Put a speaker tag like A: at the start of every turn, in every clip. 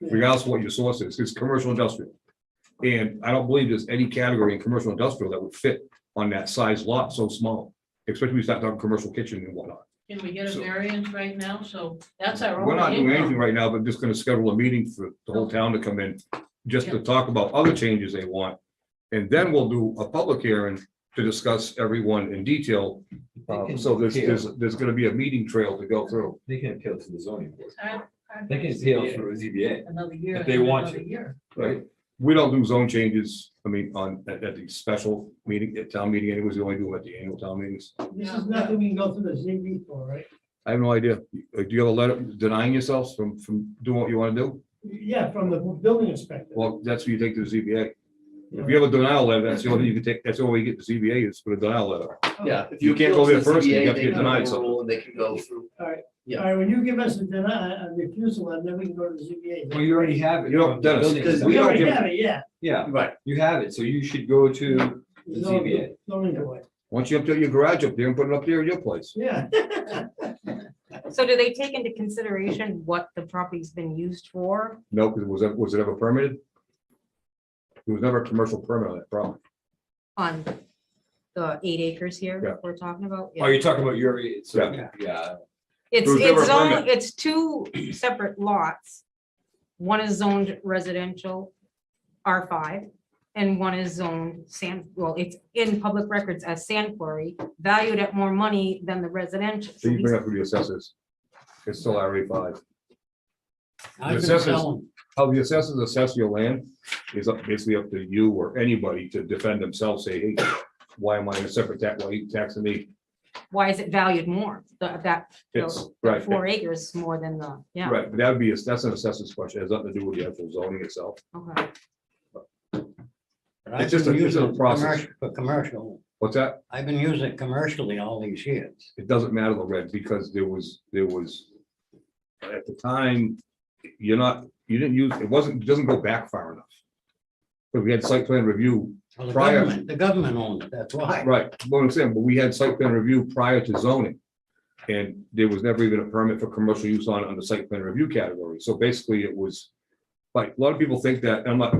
A: regardless of what your source is, it's commercial industrial. And I don't believe there's any category in commercial industrial that would fit on that size lot so small, especially when you start talking commercial kitchen and whatnot.
B: Can we get a
A: So-
B: variance right now? So that's our
A: We're not
B: only
A: doing anything
B: income.
A: right now, but just gonna schedule a meeting for the whole town to come in, just to talk about other changes they want. And then we'll do a public hearing to discuss everyone in detail. Um, So there's, there's, there's gonna be a meeting trail to go through.
C: They can appeal to the zoning board.
B: It's our- our
C: They can
B: best
C: appeal through ZBA,
B: Another year.
C: if they
B: and
C: want
B: another
C: to.
B: year.
C: right?
A: We don't do zone changes, I mean, on, at, at the special meeting, at town meeting, anyways, we only do it at the annual town meetings.
D: This is nothing we can go through the ZB for, right?
A: I have no idea. Uh, Do you have a letter denying yourselves from, from doing what you wanna do?
D: Yeah, from the building inspector.
A: Well, that's what you take to the ZBA. If you have a denial letter, that's the only, you can take, that's the only way you get the ZBA is for a denial letter.
E: Yeah. if
A: You can't go
E: appeal to
A: there
E: the
A: first, you
E: CBA,
A: have to
E: they
A: get
E: can
A: denied
E: overrule
A: something.
E: and They can go through.
D: All right, when you give us a deny, a refusal, and then we can go to the ZBA.
C: Well, you already have it.
A: You know,
C: from the
A: Dennis,
C: building
E: because
D: We
A: don't
D: already
A: give-
D: have it, yeah.
C: Yeah,
E: Right.
C: you have it, so you should go to, The ZBA.
D: Zoning board,
A: Once you update your garage up there and put it up there at your place.
D: yeah.
F: So do they take into consideration what the property's been used for?
A: No, because was that, was it ever permitted? There was never a commercial permit on that problem.
F: on the eight acres
A: Yeah.
F: here we're talking about.
C: oh, you're talking about your, so,
A: Yeah.
C: yeah,
F: It's,
A: There was never a
F: it's zoned,
A: permit.
F: it's two separate lots. One is zoned residential R five and one is zoned sand, well, it's in public records as sand quarry, valued at more money than the residential.
A: So you bring up with the assessors. It's still RA five. The
G: I've been
A: assessors-
G: telling,
A: How the assessors assess your land is up, basically up to you or anybody to defend themselves, say, hey, why am I in a separate tax, why are you taxing me?
F: Why is it valued more? The- That,
A: It's,
F: the
A: right,
F: four acres more than the, yeah,
A: right, but that'd be, that's an assessor's question, it has nothing to do with the actual zoning itself.
F: okay.
G: but I've
A: just a-
G: been
A: it's
G: using
A: a
G: it
A: process.
G: commerc- for commercial,
A: What's that?
G: I've been using it commercially all these years.
A: it doesn't matter the red because there was, there was. At the time, you're not, you didn't use, it wasn't, it doesn't go back far enough. But we had site plan review,
G: Well, the
A: Prior-
G: government, the government owned it, that's why.
A: right, what I'm saying, but we had site plan review prior to zoning. And there was never even a permit for commercial use on, on the site plan review category, so basically it was. Like, a lot of people think that, and I'm not,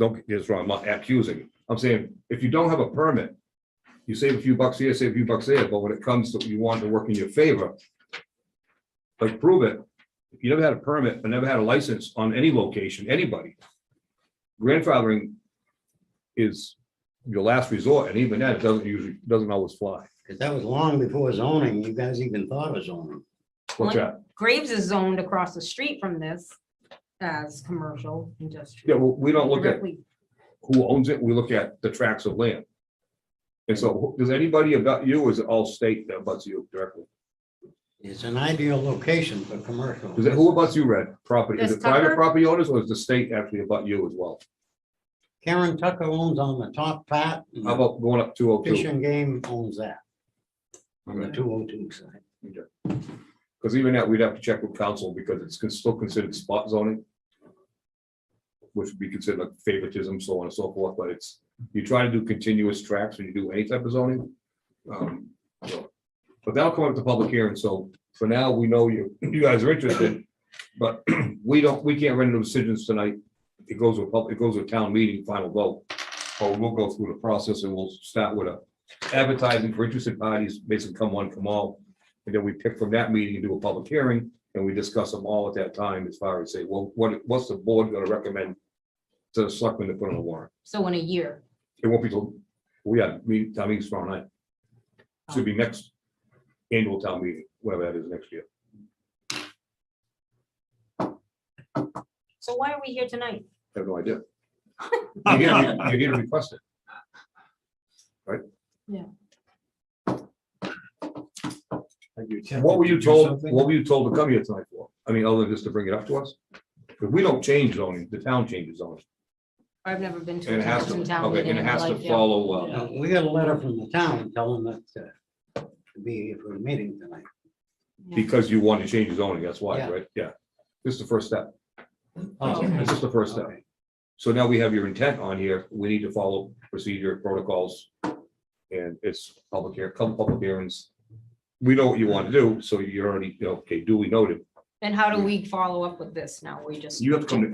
A: don't get this wrong, I'm not accusing, I'm saying, if you don't have a permit. You save a few bucks here, save a few bucks there, but when it comes to, you want to work in your favor. Like, prove it, if you never had a permit, and never had a license on any location, anybody. Grandfathering is your last resort, and even that doesn't usually, doesn't always fly.
G: Because that was long before zoning, you guys even thought of zoning.
A: What's that?
F: Graves is zoned across the street from this as commercial
A: Yeah,
F: industrial.
A: well, we don't look at
F: Directly.
A: who owns it, we look at the tracts of land. And so, who- does anybody about you, or is it all state that abuts you directly?
G: It's an ideal location for commercial.
A: Does it, who abuts you, Red, property, is
F: Does
A: it private
F: Tucker-
A: property owners, or is the state actually about you as well?
G: Karen Tucker owns on the top part. and
A: How about going up two oh
G: Fish
A: two?
G: and Game owns that on the two oh two side.
A: Because even that, we'd have to check with council, because it's con- still considered spot zoning. Which would be considered like favoritism, so on and so forth, but it's, you try to do continuous tracks when you do any type of zoning. Um, so, But that'll come up to public hearing, so for now, we know you, you guys are interested, but we don't, we can't render decisions tonight. It goes to a public, it goes to a town meeting, final vote, but we'll go through the process and we'll start with a advertising for interested parties, basically come one, come all. And then we pick from that meeting and do a public hearing, and we discuss them all at that time as far as say, well, what, what's the board gonna recommend? To the selectmen to put on the warrant,
F: So in a year.
A: it won't be till, we have meeting, town meeting tomorrow night. Should be next annual town meeting, whatever that is next year.
F: So why are we here tonight?
A: I have no idea. You're here to- you're here to request it. What were you told, what were you told to come here tonight for? I mean, other than just to bring it up to us? Because we don't change zoning, the town changes zoning.
F: I've never been to.
A: And
F: a
A: it has to,
F: Johnson town
A: okay,
F: meeting
A: and it
F: in my
A: has to
F: life, yeah.
A: follow, uh,
G: Uh, We got a letter from the town telling us to to be here for a meeting tonight.
F: Yeah.
A: Because you want to change his zoning, that's why,
G: Yeah.
A: right? Yeah. This is the first step.
G: Oh,
A: This is the first step.
G: okay.
A: So now we have your intent on here. We need to follow procedure protocols. And it's public here, come public hearings. We know what you want to do, so you're already, you know, okay, duly noted.
F: And how do we follow up with this now? We just.
A: You have to come to